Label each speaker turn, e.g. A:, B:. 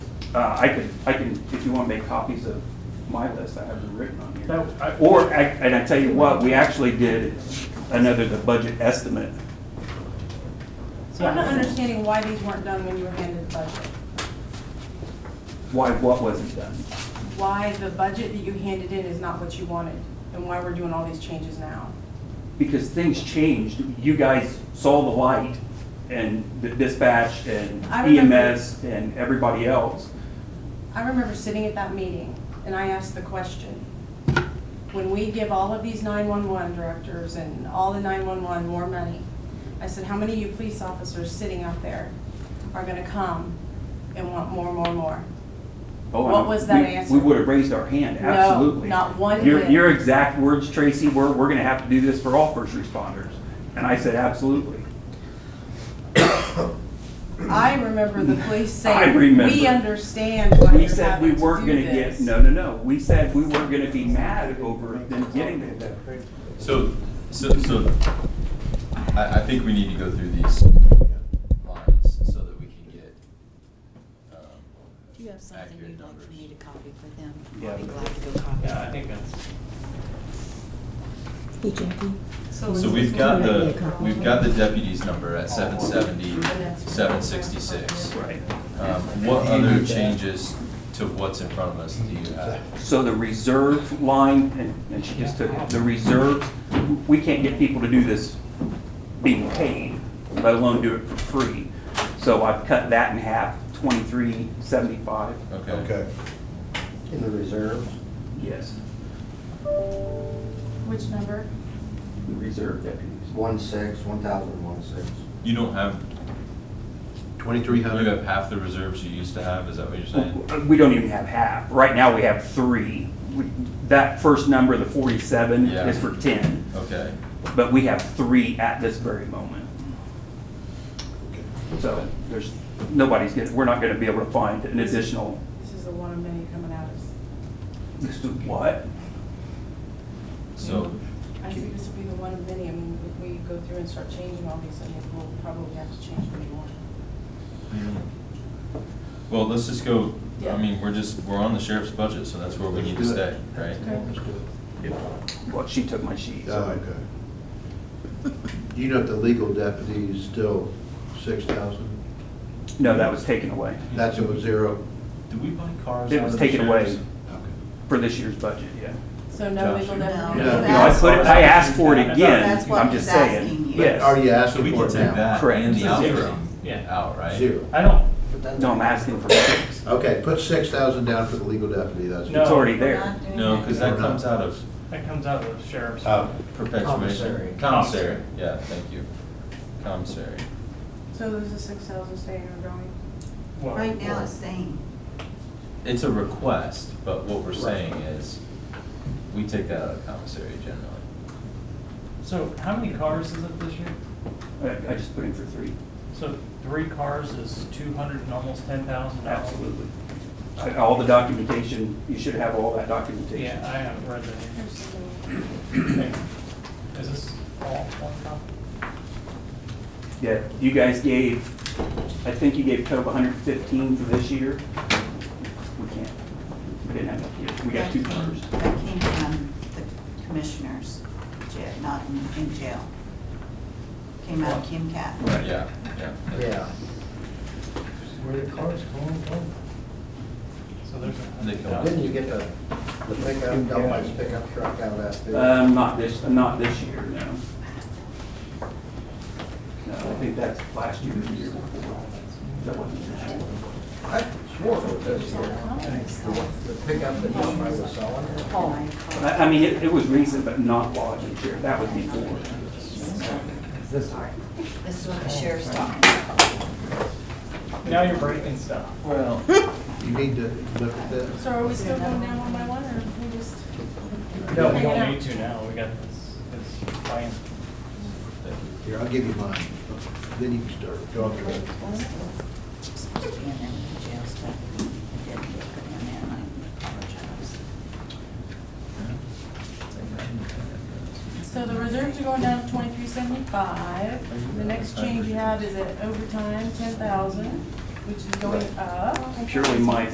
A: Uh, I could, I can, if you want to make copies of my list, I have them written on here.
B: That- I-
A: Or, I- and I tell you what, we actually did another, the budget estimate.
C: So I'm not understanding why these weren't done when you were handed the budget.
A: Why, what wasn't done?
C: Why the budget that you handed in is not what you wanted, and why we're doing all these changes now.
A: Because things changed. You guys saw the light and the dispatch and
C: I remember-
A: EMS and everybody else.
C: I remember sitting at that meeting, and I asked the question, when we give all of these 911 directors and all the 911 more money, I said, how many of you police officers sitting out there are gonna come and want more, more, more?
A: Oh,
C: What
A: and
C: was that
A: we-
C: answer?
A: We would have raised our hand,
C: No,
A: absolutely.
C: not one
A: Your,
C: bit.
A: your exact words, Tracy, were, we're gonna have to do this for all first responders. And I said, absolutely.
C: I remember the police
A: I
C: saying,
A: remember.
C: we understand why
A: We
C: you're
A: said we
C: having to
A: weren't
C: do
A: gonna get,
C: this."
A: no, no, no, we said we weren't gonna be mad over them getting it.
D: So, so, so, I, I think we need to go through these lines so that we can get, um,
E: Do you have something
D: Accurate
E: you'd like for
D: numbers.
E: me to copy for them?
A: Yeah,
E: I'd be
A: but-
E: glad to go copy.
F: Yeah, I think that's.
G: Hey Jackie.
D: so we've got the, we've got the deputy's number at seven seventy, seven sixty-six.
A: Right.
D: Um, what other changes to what's in front of us do you have?
A: So the reserve line, and, and she just took, it, the reserve, we can't get people to do this being paid, let alone do it for free. So I've cut that in half, twenty-three seventy-five.
D: Okay,
H: Okay. In the reserve?
A: Yes.
C: Which number?
A: The reserve deputies.
H: One six, one thousand one six.
D: you don't have,
H: Twenty-three
D: you have half the reserves you used to have, is that what you're saying?
A: We don't even have half. Right now, we have three. We- That first number, the forty-seven,
D: Yeah.
A: is for ten,
D: Okay,
A: but we have three at this very moment. So there's, nobody's gonna, we're not gonna be able to find an additional,
C: This is the one of many coming at us.
A: this is what?
D: so,
C: I think this will be the one of many, I mean, if we go through and start changing all these, I mean, we'll probably have to change pretty more.
D: Mm-hmm. well, let's just go, I
C: Yeah.
D: mean, we're just, we're on the sheriff's budget, so that's where we need to stay, right?
A: Well, she took my sheet. so-
I: Oh, okay. Um, Do you know if the legal deputy is still six thousand?
A: No, that was taken away
I: That's a zero.
D: Did we buy cars?
A: It
D: out
A: was
D: of the
A: taken away.
D: sheriff's?
A: for this year's budget, yeah.
C: So no legal
D: No.
C: definition?
I: Yeah.
A: You know, I put it, I asked for it again.
G: That's what
A: I'm
G: he's
A: just saying.
G: asking you.
A: Yes.
I: Are you
D: So
I: asking
D: we
I: for
D: can
I: it
D: take
I: now?
D: that
A: Correct.
D: and the
F: Zero.
D: outro
F: Yeah.
D: out, right?
I: Zero.
F: I don't,
A: No, I'm asking for six.
I: Okay, put six thousand down for the legal deputy, that's.
A: It's
F: No.
A: already there.
D: No, because that comes out of
F: that comes out of the sheriff's.
D: Oh.
I: Uh,
D: perpetuation.
I: Commissary.
D: Commissary, yeah, thank you. Commissary.
C: So there's a six thousand staying or going?
F: well,
G: Right now it's saying,
D: It's a request, but what we're saying is, we take that out of commissary generally.
F: So how many cars is it this year?
A: I, I just put in for three.
F: So three cars is two hundred and almost ten thousand dollars.
A: Absolutely. I- All the documentation, you should have all that documentation.
F: Yeah, I haven't read that.
C: There's some-
F: Thank you. Is this all one copy?
A: Yeah, you guys gave, I think you gave Cove hundred and fifteen for this year. We can't, we didn't have enough yet. We got
G: that
A: two
G: came,
A: cars.
G: that came from the commissioners, jail, not in- in jail. Came out of Kim Cat.
A: Right.
D: Yeah, yeah.
H: Yeah. Where the cars going from?
F: So there's a.
D: They come out.
H: Didn't you get the, the pickup, Delphi's pickup truck out of
D: Uh,
H: that?
A: Um, not this, not this year, no. No, I think that's last year, or the year before. That wasn't-
H: I swore it was this year. The pickup that Delphi was selling?
A: I, I mean, it, it was recent, but not lodging here. That was before.
G: This is what the sheriff's
A: Oh,
G: talking about.
F: Now you're breaking stuff.
D: Well.
I: You need to look at that.
C: So are we still going down one by one, or we just?
F: No, we
C: Hang it out.
F: don't need to now, we got this, this plan.
I: Here, I'll give you mine, then you can start. Go on.
G: Supposed to be in there with the jail stuff. It didn't get put in there, and I apologize.
D: Mm-hmm.
C: So the reserves are going down to twenty-three seventy-five. The next change you have is at overtime, ten thousand, which is going up.
A: Purely my